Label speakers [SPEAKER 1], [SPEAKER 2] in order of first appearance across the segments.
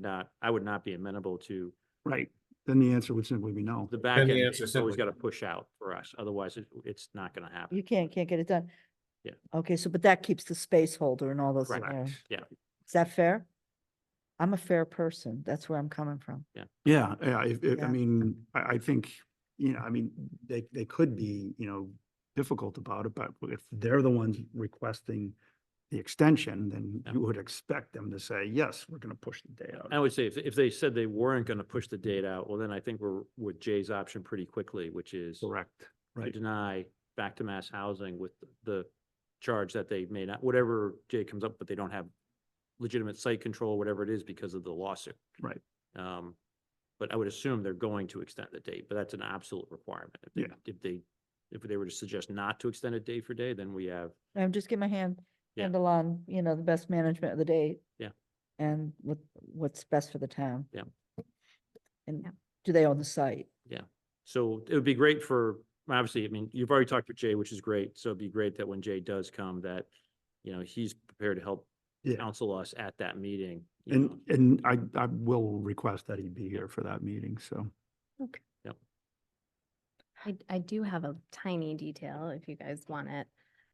[SPEAKER 1] not, I would not be amenable to
[SPEAKER 2] Right, then the answer would simply be no.
[SPEAKER 1] the back end.
[SPEAKER 3] the answer
[SPEAKER 1] It's always got
[SPEAKER 3] simply-
[SPEAKER 1] to push out for us. Otherwise, it, it's not going to
[SPEAKER 4] You
[SPEAKER 1] happen.
[SPEAKER 4] can't, can't get it done.
[SPEAKER 1] Yeah.
[SPEAKER 4] Okay, so, but that keeps the space holder and all those in
[SPEAKER 1] Correct.
[SPEAKER 4] there. Is
[SPEAKER 1] Yeah,
[SPEAKER 4] that fair? I'm a fair person. That's where I'm coming from.
[SPEAKER 2] Yeah, yeah, if, if, I
[SPEAKER 4] Yeah.
[SPEAKER 2] mean, I, I think, you know, I mean, they, they could be, you know, difficult about it, but if they're the ones requesting the extension, then
[SPEAKER 1] Yeah.
[SPEAKER 2] you would expect them to say, yes, we're gonna push the day
[SPEAKER 1] I
[SPEAKER 2] out.
[SPEAKER 1] would say if, if they said they weren't going to push the date out, well, then I think we're with Jay's option pretty quickly, which is
[SPEAKER 2] Correct,
[SPEAKER 1] to
[SPEAKER 2] right,
[SPEAKER 1] deny back to mass housing with the charge that they may not, whatever Jay comes up, but they don't have legitimate site control, whatever it is, because of the lawsuit.
[SPEAKER 2] Right.
[SPEAKER 1] Um, but I would assume they're going to extend the date, but that's an absolute requirement. If they-
[SPEAKER 2] Yeah.
[SPEAKER 1] If they, if they were to suggest not to extend it day for day, then we have,
[SPEAKER 4] I'm just getting my hand,
[SPEAKER 1] Yeah.
[SPEAKER 4] handle on, you know, the best management of the day.
[SPEAKER 1] Yeah.
[SPEAKER 4] And what, what's best for the town.
[SPEAKER 1] Yeah.
[SPEAKER 4] And
[SPEAKER 5] Yeah.
[SPEAKER 4] do they own the site?
[SPEAKER 1] so it would be great for, obviously, I mean, you've already talked with Jay, which is great, so it'd be great that when Jay does come, that, you know, he's prepared to help
[SPEAKER 2] Yeah.
[SPEAKER 1] counsel us at that meeting. you know.
[SPEAKER 2] and, and I, I will request that he be here for that meeting, so.
[SPEAKER 5] I, I do have a tiny detail if you guys want it.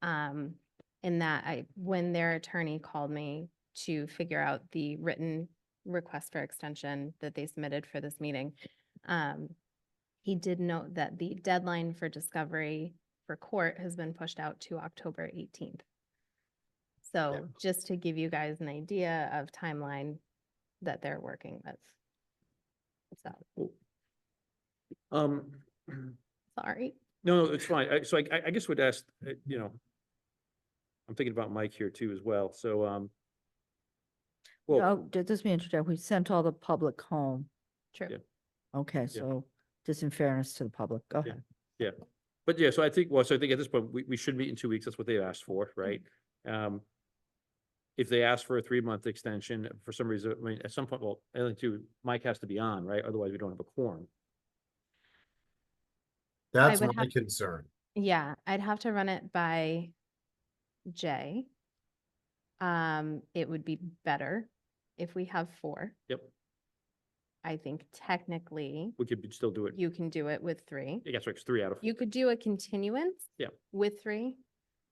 [SPEAKER 5] Um, in that I, when their attorney called me to figure out the written request for extension that they submitted for this meeting, um, he did note that the deadline for discovery for court has been pushed out to October eighteenth. So just to give you guys an idea of timeline that they're working with. So,
[SPEAKER 1] Um,
[SPEAKER 5] sorry.
[SPEAKER 1] no, no, it's fine. I- So I, I- I guess would ask, uh, you know, I'm thinking about Mike here too as well, so, um, well,
[SPEAKER 4] Oh, just me interject. We sent all the public home.
[SPEAKER 5] True.
[SPEAKER 1] Yeah.
[SPEAKER 4] Okay, so just in fairness to the public, go
[SPEAKER 1] Yeah.
[SPEAKER 4] ahead.
[SPEAKER 1] but yeah, so I think, well, so I think at this point, we, we should meet in two weeks. That's what they asked for, right? Um, if they ask for a three-month extension, for some reason, I mean, at some point, well, I think too, Mike has to be on, right? Otherwise, we don't have a quorum.
[SPEAKER 3] That's
[SPEAKER 5] would
[SPEAKER 3] my
[SPEAKER 5] have-
[SPEAKER 3] concern.
[SPEAKER 5] Yeah, I'd have to run it by Jay. Um, it would be better if we have four.
[SPEAKER 1] Yep,
[SPEAKER 5] I think technically
[SPEAKER 1] we could still do it.
[SPEAKER 5] you can do it with three.
[SPEAKER 1] I guess it's three out of,
[SPEAKER 5] You could do a continuance.
[SPEAKER 1] Yep.
[SPEAKER 5] With three.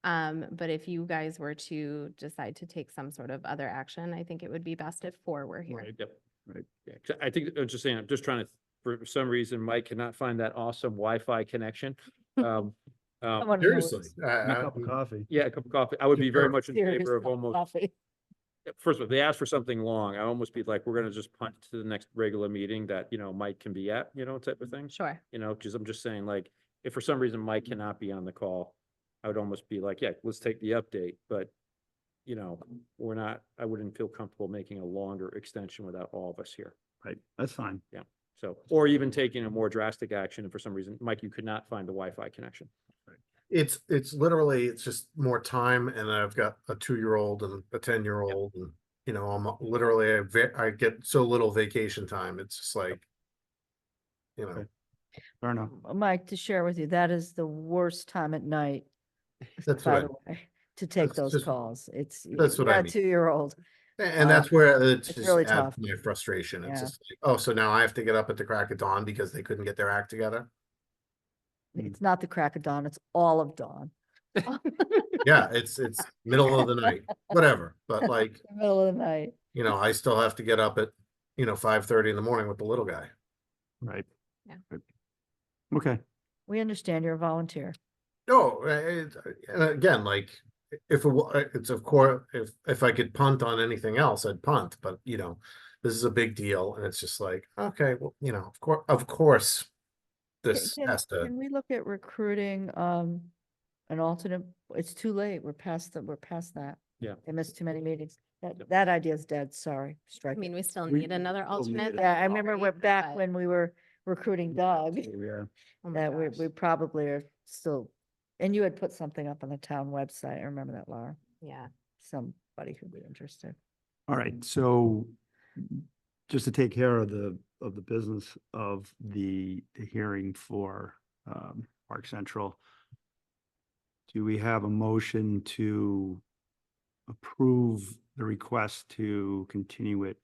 [SPEAKER 5] Um, but if you guys were to decide to take some sort of other action, I think it would be best if four were here.
[SPEAKER 1] Yep.
[SPEAKER 2] Right.
[SPEAKER 1] Yeah, 'cause I think, I'm just saying, I'm just trying to, for some reason, Mike cannot find that awesome Wi-Fi connection. Um, um,
[SPEAKER 4] Someone who knows.
[SPEAKER 3] Seriously.
[SPEAKER 2] A
[SPEAKER 3] I- uh, I-
[SPEAKER 2] cup of coffee.
[SPEAKER 1] Uh, Yeah, a cup of coffee. I would be very
[SPEAKER 3] Sure.
[SPEAKER 1] much in
[SPEAKER 4] Serious
[SPEAKER 1] favor of
[SPEAKER 4] cup of
[SPEAKER 1] almost,
[SPEAKER 4] coffee.
[SPEAKER 1] first of all, if they asked for something long. I almost be like, we're gonna just punt to the next regular meeting that, you know, Mike can be at, you know, type of thing.
[SPEAKER 5] Sure.
[SPEAKER 1] You know, just, I'm just saying, like, if for some reason Mike cannot be on the call, I would almost be like, yeah, let's take the update, but you know, we're not, I wouldn't feel comfortable making a longer extension without all of us here.
[SPEAKER 2] Right, that's fine.
[SPEAKER 1] So, or even taking a more drastic action, and for some reason, Mike, you could not find the Wi-Fi connection.
[SPEAKER 3] It's, it's literally, it's just more time and I've got a two-year-old and a ten-year-old and, you know, I'm literally, I ve- I get so little vacation time. It's just like, you know,
[SPEAKER 2] Okay. Fair enough.
[SPEAKER 4] Mike, to share with you, that is the worst time at night,
[SPEAKER 3] that's
[SPEAKER 4] by
[SPEAKER 3] what I,
[SPEAKER 4] the way, to take
[SPEAKER 3] That's
[SPEAKER 4] those
[SPEAKER 3] just-
[SPEAKER 4] calls. It's. you
[SPEAKER 3] that's what I
[SPEAKER 4] got a
[SPEAKER 3] mean.
[SPEAKER 4] Two-year-old.
[SPEAKER 3] a- and
[SPEAKER 4] Uh,
[SPEAKER 3] that's where it's
[SPEAKER 4] it's
[SPEAKER 3] just
[SPEAKER 4] really
[SPEAKER 3] adds
[SPEAKER 4] tough.
[SPEAKER 3] to my frustration. It's
[SPEAKER 4] Yeah.
[SPEAKER 3] just, like, oh, so now I have to get up at the crack of dawn because they couldn't get their act together? Hmm.
[SPEAKER 2] Mm.
[SPEAKER 4] It's not the crack of dawn, it's all of dawn,
[SPEAKER 3] Yeah, it's, it's middle of the night, whatever, but like,
[SPEAKER 4] the middle of the night.
[SPEAKER 3] you know, I still have to get up at, you know, five-thirty in the morning with the little guy.
[SPEAKER 2] Right.
[SPEAKER 5] Yeah.
[SPEAKER 2] Right. Okay,
[SPEAKER 4] We understand you're a volunteer.
[SPEAKER 3] No, uh, it, and again, like, i- if it wa- uh, it's of course, if, if I could punt on anything else, I'd punt, but you know, this is a big deal and it's just like, okay, well, you know, of course, of course,
[SPEAKER 4] Ca-
[SPEAKER 3] this
[SPEAKER 4] can-
[SPEAKER 3] has to,
[SPEAKER 4] Can we look at recruiting, um, an alternate? It's too late. We're past the, we're past that.
[SPEAKER 1] Yeah.
[SPEAKER 4] They missed too many meetings.
[SPEAKER 1] Yep.
[SPEAKER 4] That, that idea's dead, sorry,
[SPEAKER 5] I
[SPEAKER 4] strike
[SPEAKER 5] mean,
[SPEAKER 4] it.
[SPEAKER 5] we still
[SPEAKER 2] We-
[SPEAKER 5] need another
[SPEAKER 2] we'll need
[SPEAKER 5] alternate.
[SPEAKER 2] it.
[SPEAKER 4] Yeah, I remember
[SPEAKER 5] Sorry,
[SPEAKER 4] we're back
[SPEAKER 5] but-
[SPEAKER 4] when we were recruiting Doug,
[SPEAKER 2] yeah.
[SPEAKER 5] oh my
[SPEAKER 4] that we,
[SPEAKER 5] gosh,
[SPEAKER 4] we probably are still, and you had put something up on the town website. I remember that, Laura.
[SPEAKER 5] Yeah.
[SPEAKER 4] Somebody who'd be interested.
[SPEAKER 2] All right, so just to take care of the, of the business of the, the hearing for um, Park Central, do we have a motion to approve the request to continue it